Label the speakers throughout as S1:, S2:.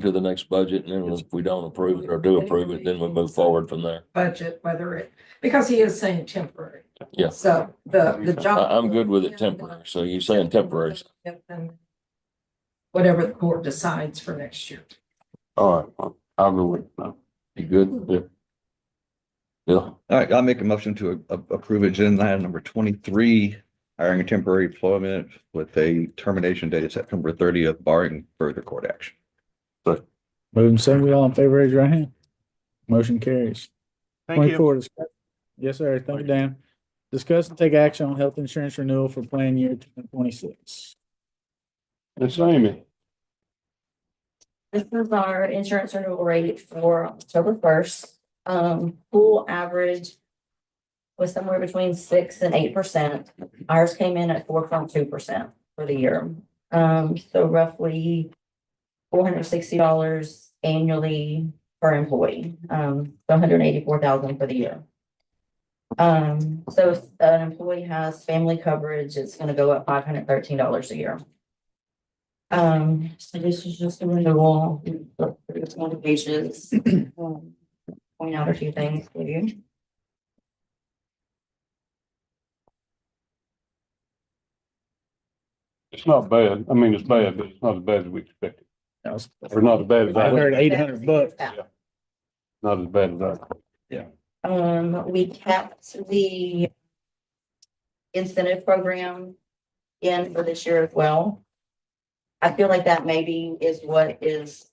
S1: to the next budget and then if we don't approve it or do approve it, then we move forward from there.
S2: budget, whether it, because he is saying temporary.
S1: Yeah.
S2: So the, the job.
S1: I, I'm good with it temporary. So you're saying temporary.
S2: Yep, and Whatever the court decides for next year.
S1: All right, well, I'll go with, no. You good? Yeah. Yeah,
S3: All right, I'll make a motion to a- a- approve agenda item number twenty-three, hiring a temporary employment with a termination date of September thirtieth barring further court action.
S4: Moving second, all in favor, raise your hand. Motion carries.
S5: Thank you.
S4: Twenty-four, discuss- yes, sir, thank you, Dan. Discuss and take action on health insurance renewal for plan year twenty-six.
S6: It's Amy.
S7: This is our insurance renewal rate for October first. Um, pool average was somewhere between six and eight percent. Ours came in at four point two percent for the year. Um, so roughly four hundred sixty dollars annually per employee, um, one hundred eighty-four thousand dollars for the year. Um, so if an employee has family coverage, it's gonna go up five hundred thirteen dollars a year. Um, so this is just a renewal, it's one of the pages. Um, Point out a few things for you.
S6: It's not bad. I mean, it's bad, but it's not as bad as we expected.
S4: That was-
S6: Or not as bad as
S4: I
S6: I,
S4: heard eight hundred bucks.
S6: not as bad as I.
S7: Um, we kept the incentive program in for this year as well. I feel like that maybe is what is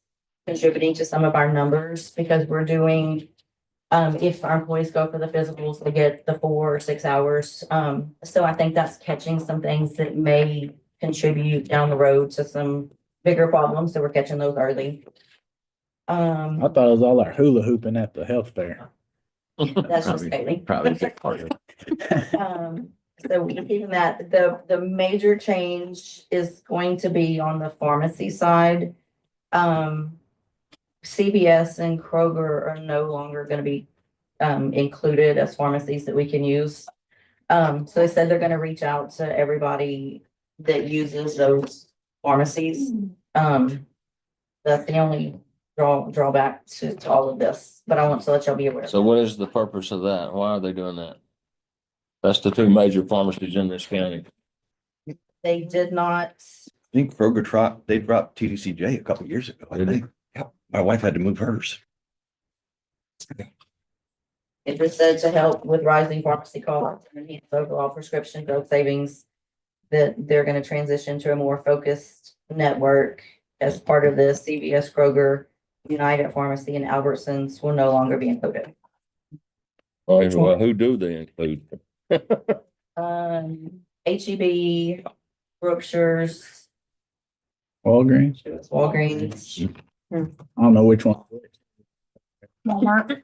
S7: contributing to some of our numbers because we're doing, um, if our employees go for the physicals, they get the four or six hours. Um, so I think that's catching some things that may contribute down the road to some bigger problems. So we're catching those early. Um.
S4: I thought it was all our hula hooping at the health fair.
S7: That's just
S3: Probably-
S7: Bailey.
S3: probably a big part of
S7: Um, so we keeping that, the, the major change is going to be on the pharmacy side. Um, CVS and Kroger are no longer gonna be, um, included as pharmacies that we can use. Um, so they said they're gonna reach out to everybody that uses those pharmacies. Um, that's the only draw, drawback to, to all of this, but I want to let y'all be aware. of
S1: so what is the purpose of that? Why are they doing that? That's the two major pharmacies in this county.
S7: They did not,
S3: I think Kroger dropped, they dropped TDCJ a couple years ago, I
S1: Did they?
S3: think. Yep, my wife had to move hers.
S7: it just said to help with rising pharmacy costs and enhance overall prescription drug savings. That they're gonna transition to a more focused network as part of this. CVS Kroger, United Pharmacy and Albertsons will no longer be included.
S1: Well, who do they include?
S7: Um, H E B, Brookshire's,
S4: Walgreens,
S7: Walgreens,
S4: I don't know which one.
S7: Walmart.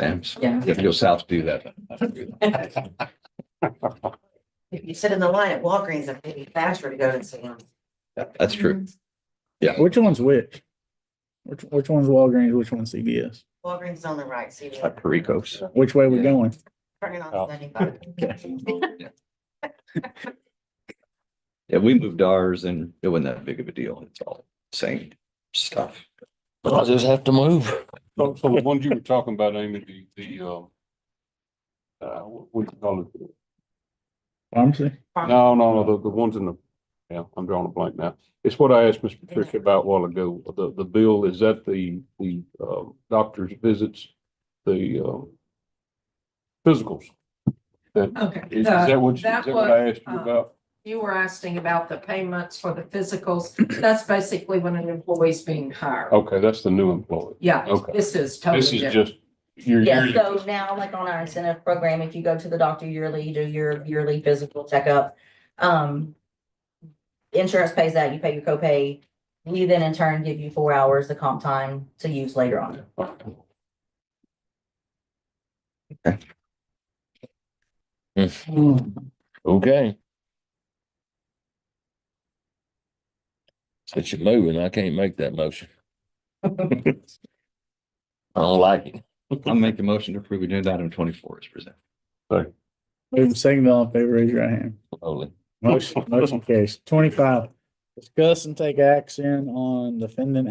S3: Sam's.
S7: Yeah.
S3: If you go south, do that.
S8: If you sit in the line at Walgreens, it may be faster to go to Sam's.
S3: That's true.
S4: Which one's which? Which, which one's Walgreens, which one's CVS?
S8: Walgreens on the right, so
S3: It's
S8: you're
S3: Like Perico's.
S4: Which way we going?
S8: turning
S6: Oh.
S8: on seventy-five.
S3: Yeah, we moved ours and it wasn't that big of a deal. It's all same stuff.
S1: I just have to move.
S6: So, so the ones you were talking about, Amy, the, the, um, uh, what what do you call it?
S4: Pharmacy?
S6: No, no, no, the, the ones in the, yeah, I'm drawing a blank now. It's what I asked Miss Patricia about a while ago. The, the bill, is that the, the, uh, doctor's visits, the, um, physicals?
S2: Okay.
S6: Is is
S2: the-
S6: that what, you-
S2: that
S6: is that what I
S2: was,
S6: asked you
S2: uh,
S6: about?
S2: You were asking about the payments for the physicals. That's basically when an employee's being hired.
S6: Okay, that's the new employee.
S2: Yeah,
S6: okay.
S2: this is totally
S6: This
S2: different.
S6: is just, you're,
S7: Yeah,
S6: you're,
S7: so now like on our incentive program, if you go to the doctor yearly, you do your yearly physical checkup, um. Insurance pays that, you pay your copay, we then in turn give you four hours of comp time to use later on.
S1: Hmm. Okay. Since you're moving, I can't make that motion. I don't like it.
S3: I'll make a motion to approve agenda item twenty-four is presented.
S4: Moving second, all in favor, raise your hand.
S1: Holy.
S4: Motion, motion carries. Twenty-five, discuss and take action on defendant